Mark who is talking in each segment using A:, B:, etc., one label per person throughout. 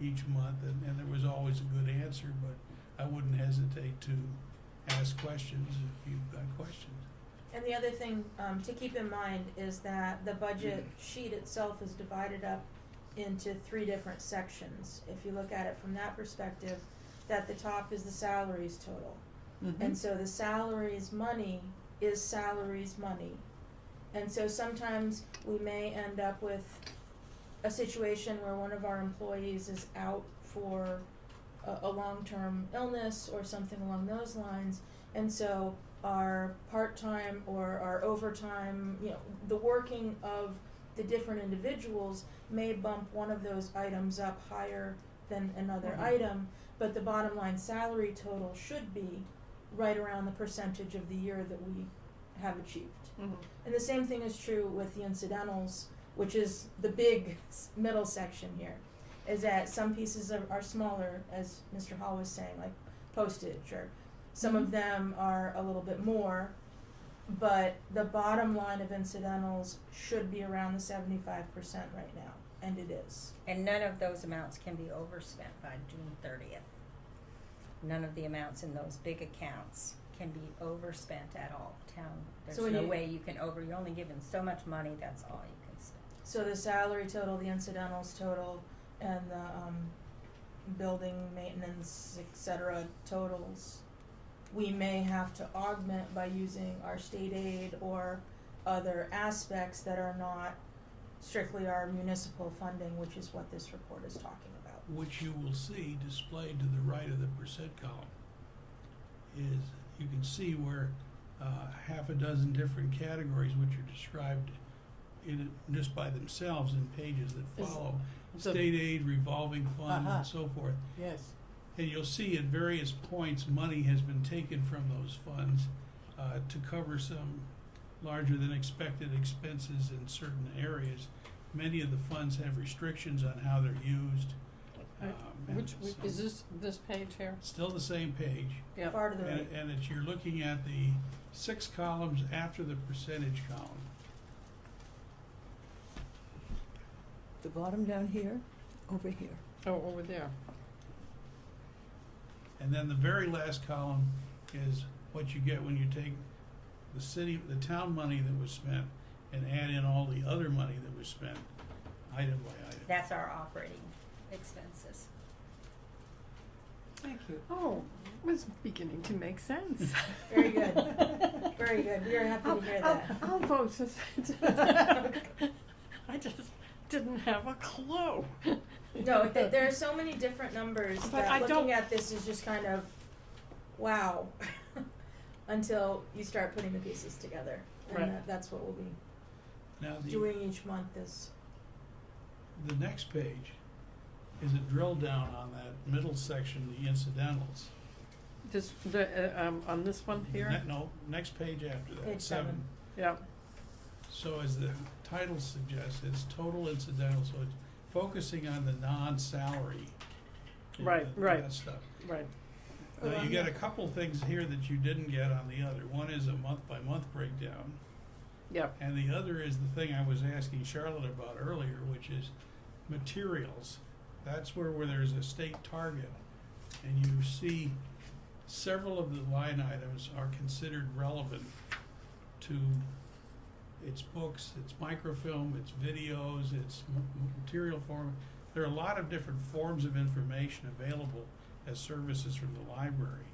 A: each month, and, and there was always a good answer, but I wouldn't hesitate to ask questions if you've got questions.
B: And the other thing, um, to keep in mind is that the budget sheet itself is divided up into three different sections. If you look at it from that perspective, that the top is the salaries total.
A: Mm-hmm.
C: Mm-hmm.
B: And so the salaries money is salaries money. And so sometimes we may end up with a situation where one of our employees is out for a, a long-term illness or something along those lines. And so our part-time or our overtime, you know, the working of the different individuals may bump one of those items up higher than another
D: Mhm.
B: item, but the bottom line salary total should be right around the percentage of the year that we have achieved.
C: Mm-hmm.
B: And the same thing is true with the incidentals, which is the big s- middle section here, is that some pieces are, are smaller, as Mr. Hall was saying, like postage, or some of
D: Mhm.
B: them are a little bit more. But the bottom line of incidentals should be around the 75% right now, and it is.
C: And none of those amounts can be overspent by June thirtieth. None of the amounts in those big accounts can be overspent at all. Town, there's
B: So when
C: no
B: you-
C: way you can over, you're only given so much money, that's all you can spend.
B: So the salary total, the incidentals total, and the um, building maintenance, et cetera, totals, we may have to augment by using our state aid or other aspects that are not strictly our municipal funding, which is what this report is talking about.
A: which you will see displayed to the right of the percent column, is you can see where uh, half a dozen different categories, which are described in just by themselves in pages that
D: Is-
A: follow,
D: the-
A: state aid, revolving fund,
D: Uh-huh.
A: and so forth.
D: Yes.
A: And you'll see at various points, money has been taken from those funds uh, to cover some larger than expected expenses in certain areas. Many of the funds have restrictions on how they're used. um, and
D: Which, which-
A: so-
D: is this, this page here?
A: Still the same page,
D: Yep.
B: Far to the right.
A: and, and it's, you're looking at the six columns after the percentage column.
E: The bottom down here, over here.
D: Oh, over there.
A: And then the very last column is what you get when you take the city, the town money that was spent and add in all the other money that was spent, item by item.
C: That's our operating expenses.
E: Thank you.
D: Oh, was beginning to make sense.
B: Very good. Very good. We are happy to
D: I'll-
B: hear
D: I'll-
B: that.
D: I'll vote for that. I just didn't have a clue.
B: No, th- there are so many different numbers
D: But
B: that
D: I
B: looking
D: don't-
B: at this is just kind of, wow, until you start putting the pieces together. And
D: Right.
B: that, that's what we'll be
A: Now, the,
B: doing each month is,
A: the next page is a drill down on that middle section, the incidentals.
D: This, the, uh, um, on this one
A: The
D: here?
A: ne- No, next page after that, seven.
B: Page seven.
D: Yeah,
A: So as the title suggests, it's total incidental, so it's focusing on the non-salary. and
D: Right,
A: that-
D: right.
A: That stuff.
D: right.
A: Now, you
B: Um,
A: got a couple things here that you didn't get on the other. One is a month-by-month breakdown,
D: Yeah,
A: and the other is the thing I was asking Charlotte about earlier, which is materials. That's where, where there's a state target, and you see several of the line items are considered relevant to its books, its microfilm, its videos, its m- m- material form. There are a lot of different forms of information available as services from the library.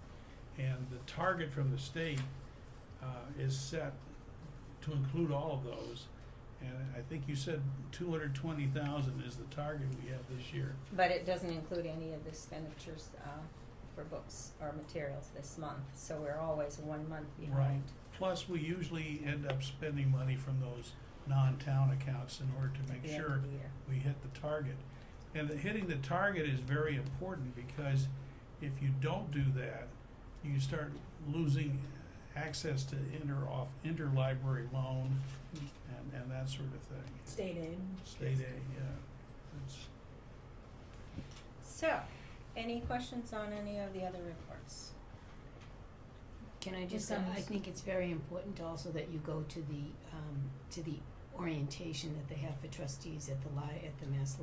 A: And the target from the state uh, is set to include all of those. And I think you said two hundred twenty thousand is the target we have this year.
C: But it doesn't include any of the expenditures, uh, for books or materials this month, so we're always one month behind.
A: Plus, we usually end up spending money from those non-town accounts in order to
C: at
A: make
C: the end
A: sure
C: of the year.
A: we hit the target. And the, hitting the target is very important because if you don't do that, you start losing access to inter off interlibrary loan and, and that sort of thing.
B: state aid.
A: State aid, yeah. It's,
C: So, any questions on any of the other reports?
F: Can I just,
B: Ms.
F: uh, I
B: Simmons?
F: think it's very important also that you go to the, um, to the orientation that they have for trustees at the li- at the Mass